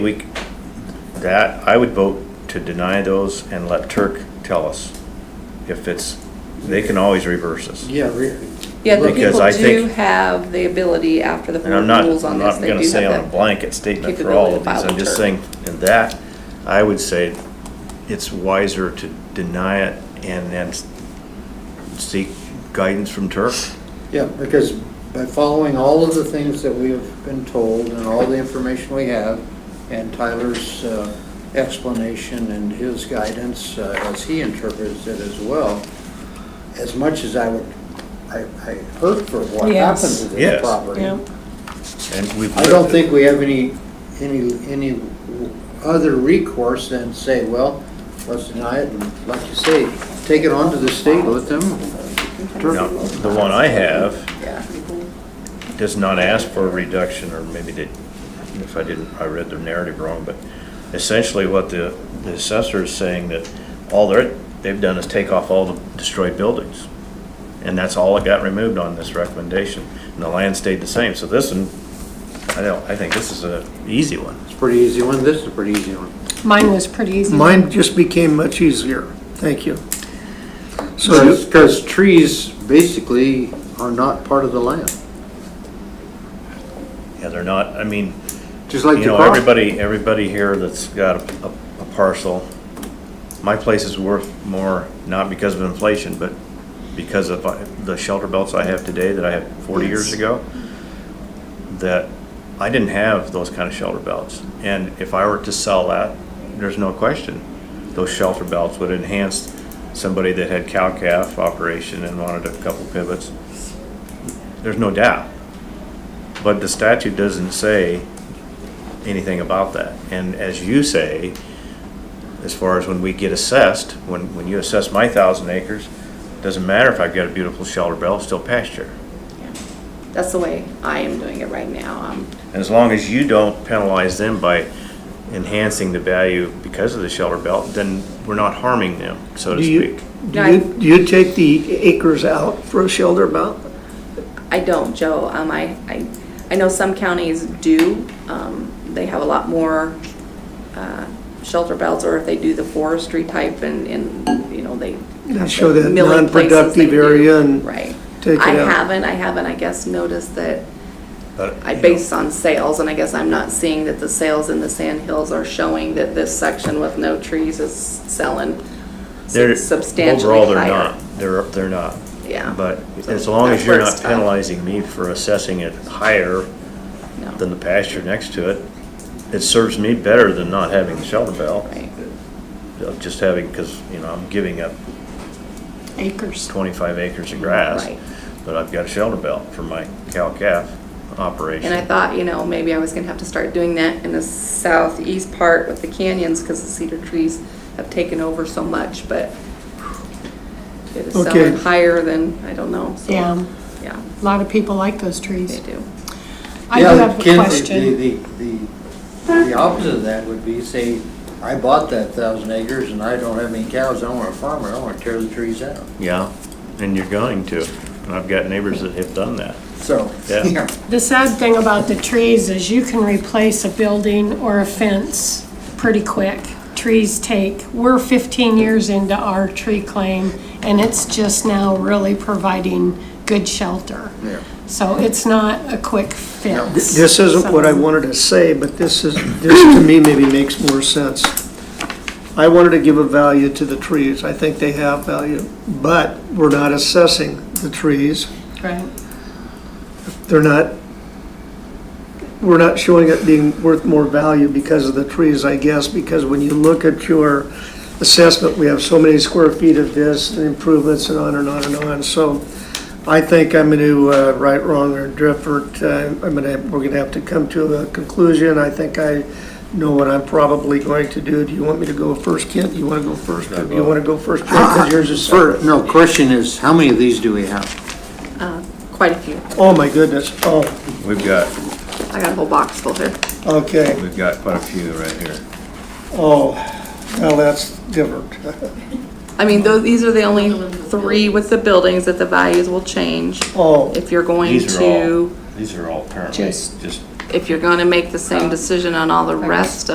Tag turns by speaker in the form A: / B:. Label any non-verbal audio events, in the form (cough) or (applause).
A: We, c- that, I would vote to deny those and let Turk tell us if it's, they can always reverse us.
B: Yeah, re-
C: Yeah, the
A: Because
C: people
A: I
C: do
A: think-
C: have the ability after the
A: And I'm
C: board
A: not,
C: rules on
A: I'm
C: this,
A: not
C: they do
A: gonna
C: have
A: say on a
C: that.
A: blanket statement for
C: capability
A: all
C: to
A: of these,
C: file
A: I'm just
C: return.
A: saying, in that, I would say it's wiser to deny it and then s- seek guidance from Turk.
B: yeah, because by following all of the things that we have been told and all the information we have, and Tyler's uh, explanation and his guidance uh, as he interprets it as well, as much as I would, I, I hurt for what
D: Yes.
B: happened to
A: Yes.
B: this property.
D: Yeah.
A: And we've.
B: I don't think we have any, any, any other recourse than say, well, let's deny it and, like you say, take it on to the state, let them.
A: No, The one I have
C: Yeah.
A: does not ask for a reduction, or maybe they, if I didn't, I read the narrative wrong, but essentially what the, the assessor is saying that all they're, they've done is take off all the destroyed buildings. And that's all that got removed on this recommendation, and the land stayed the same, so this one, I don't, I think this is a easy one.
B: It's a pretty easy one, this is a pretty easy one.
D: Mine was pretty easy.
E: Mine just became much easier, thank you. So, you-
B: Because trees basically are not part of the land,
A: Yeah, they're not, I mean,
B: just like
A: You
B: the
A: know,
B: crop.
A: everybody, everybody here that's got a, a parcel, my place is worth more, not because of inflation, but because of uh, the shelter belts I have today that I had forty years
D: Yes.
A: ago, that I didn't have those kind of shelter belts. And if I were to sell that, there's no question, those shelter belts would enhance somebody that had cow calf operation and wanted a couple pivots. There's no doubt. But the statute doesn't say anything about that. And as you say, as far as when we get assessed, when, when you assess my thousand acres, doesn't matter if I've got a beautiful shelter belt, it's still pasture.
C: That's the way I am doing it right now. Um,
A: And as long as you don't penalize them by enhancing the value because of the shelter belt, then we're not harming them, so to
E: do you,
A: speak.
C: No,
E: do
C: I-
E: you, do you take the acres out for a shelter amount?
C: I don't, Joe. Um, I, I, I know some counties do. Um, they have a lot more, uh, shelter belts, or if they do the forestry type and, and, you know, they.
E: And show that
C: milling places, they
E: non-productive
C: do.
E: area and
C: Right.
E: take it
C: I
E: out.
C: haven't, I haven't, I guess, noticed that
A: But,
C: I
A: you know,
C: based on sales, and I guess I'm not seeing that the sales in the Sand Hills are showing that this section with no trees is selling
A: they're- Overall,
C: substantially
A: they're
C: higher.
A: not, they're, they're not.
C: Yeah.
A: But
C: So
A: as long as
C: that's
A: you're
C: where
A: not
C: it's tough.
A: penalizing me for assessing it higher
C: No.
A: than the pasture next to it, it serves me better than not having the shelter belt.
C: Right.
A: of Just having, because, you know, I'm giving up
D: Acres.
A: 25 acres of grass,
C: Right.
A: but I've got a shelter belt for my cow-calf
C: And I
A: operation.
C: thought, you know, maybe I was gonna have to start doing that in the southeast part with the canyons, because the cedar trees have taken over so much, but it is selling
E: Okay.
C: higher than, I don't know, so.
D: Yeah,
C: Yeah,
D: a lot of people like those
C: they
D: trees.
C: do.
D: I do
B: Yeah,
D: have a
B: Ken, the-
D: question.
B: The, the, the the opposite of that would be, say, I bought that thousand acres and I don't have any cows, I want a farmer, I want to tear the trees out.
A: Yeah, and you're going to. And I've got neighbors that have done that.
B: So,
A: Yeah.
B: (laughs) yeah,
D: The sad thing about the trees is you can replace a building or a fence pretty quick. Trees take, we're 15 years into our tree claim, and it's just now really providing good shelter.
B: Yeah.
D: So it's not a quick
E: Th-
D: fix.
E: This isn't what I
D: So-
E: wanted to say, but this is, this to me maybe makes more sense. I wanted to give a value to the trees, I think they have value, but we're not assessing the trees.
D: Right.
E: they're not, we're not showing it being worth more value because of the trees, I guess, because when you look at your assessment, we have so many square feet of this, and improvements, and on and on and on, so I think I'm gonna, uh, right, wrong, or different, uh, I'm gonna, we're gonna have to come to a conclusion, I think I know what I'm probably going to do, do you want me to go first, Kent, do you wanna go first, do you wanna go first, Joe, 'Cause yours is
B: Fir-
E: first?
B: no, question is, how many of these do we have?
C: Uh, Quite a few.
E: Oh, my goodness, oh,
A: We've got,
C: I got a whole box full here.
E: okay.
A: we've got quite a few right here.
E: Oh, well, that's different.
C: I mean, those, these are the only three with the buildings that the values will change.
E: Oh,
C: If you're going
A: These are all,
C: to,
A: these are all apparently
D: Just-
A: just
C: if you're gonna make the same decision on all the rest